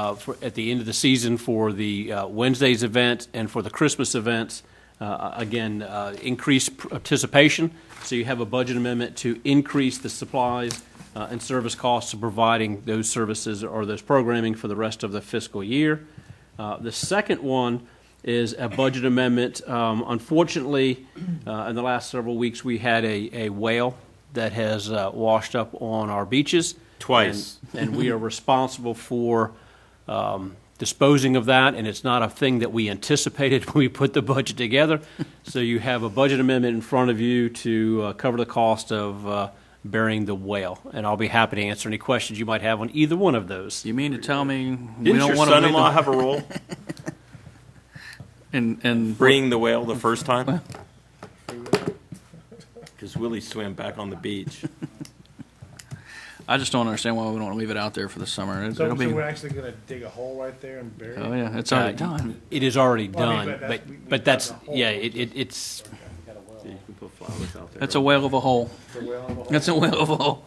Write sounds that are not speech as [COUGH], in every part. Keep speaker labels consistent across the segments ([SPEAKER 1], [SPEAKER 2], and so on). [SPEAKER 1] uh, for- at the end of the season for the uh, Wednesday's event and for the Christmas events. Uh, Again, uh, increased participation, so you have a budget amendment to increase the supplies uh, and service costs of providing those services or those programming for the rest of the fiscal year. Uh, The second one is a budget amendment. Um, Unfortunately, uh, in the last several weeks, we had a a whale that has uh, washed up on our beaches.
[SPEAKER 2] Twice.
[SPEAKER 1] And and we are responsible for um, disposing of that, and it's not a thing that we anticipated [LAUGHS] when we put the budget together. So you have a budget amendment in front of you to uh, cover the cost of uh, burying the whale, and I'll be happy to answer any questions you might have on either one of those.
[SPEAKER 3] You mean to tell me we
[SPEAKER 2] Didn't
[SPEAKER 3] don't
[SPEAKER 2] your
[SPEAKER 3] want to
[SPEAKER 2] son-in-law
[SPEAKER 3] leave
[SPEAKER 2] have a
[SPEAKER 3] [LAUGHS]
[SPEAKER 2] role?
[SPEAKER 3] and and
[SPEAKER 2] Bringing the whale the first time? Because Willie swam back on the beach.
[SPEAKER 3] I just don't understand why we don't want to leave it out there for the summer. It,
[SPEAKER 4] So,
[SPEAKER 3] will
[SPEAKER 4] so
[SPEAKER 3] be.
[SPEAKER 4] we're actually gonna dig a hole right there and bury it?
[SPEAKER 3] oh yeah, it's
[SPEAKER 1] Uh,
[SPEAKER 3] already done.
[SPEAKER 1] It is already
[SPEAKER 4] Well, I mean,
[SPEAKER 1] done, but,
[SPEAKER 4] but that's- we- we
[SPEAKER 1] but
[SPEAKER 4] dug
[SPEAKER 1] that's,
[SPEAKER 4] a hole.
[SPEAKER 1] yeah, it, it- it's,
[SPEAKER 2] You can put flowers out there.
[SPEAKER 3] That's a whale of a hole.
[SPEAKER 4] The well and the hole?
[SPEAKER 3] That's a whale of a hole.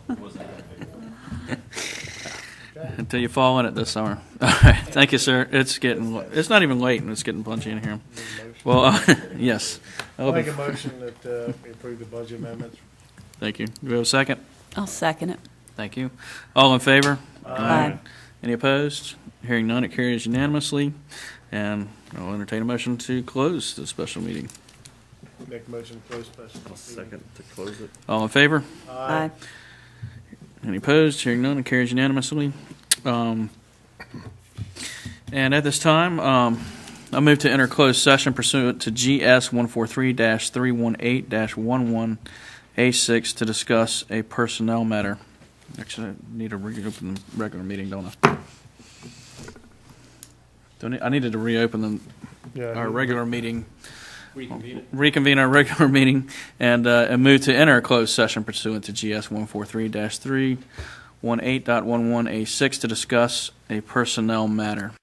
[SPEAKER 3] [LAUGHS] Until you fall in it this summer. [LAUGHS] All right, thank you, sir. It's getting it's not even late and it's getting punchy in here. Well, [LAUGHS] uh, yes. That'll
[SPEAKER 4] I'll
[SPEAKER 3] be-
[SPEAKER 4] make a motion that, uh, we approve the budget amendments.
[SPEAKER 3] thank you. Do we have a second?
[SPEAKER 5] I'll second it.
[SPEAKER 3] Thank you. All in favor?
[SPEAKER 5] Aye.
[SPEAKER 3] Any opposed? Hearing none, it carries unanimously. And I'll entertain a motion to close the special meeting.
[SPEAKER 4] Make a motion to close special.
[SPEAKER 2] [LAUGHS] I'll
[SPEAKER 4] meeting.
[SPEAKER 2] second to close it.
[SPEAKER 3] All in favor?
[SPEAKER 5] Aye.
[SPEAKER 3] Any opposed? Hearing none, it carries unanimously. Um, And at this time, um, I move to enter closed session pursuant to GS 143-318-11A6 to discuss a personnel matter. Actually, I need to reopen the regular meeting, don't I? Don't I I needed to reopen
[SPEAKER 4] Yeah,
[SPEAKER 3] the, our regular meeting
[SPEAKER 1] reconvene it.
[SPEAKER 3] reconvene our regular [LAUGHS] meeting and, uh, and move to enter a closed session pursuant to GS one four three dash three one eight dot one one A six to discuss a personnel matter.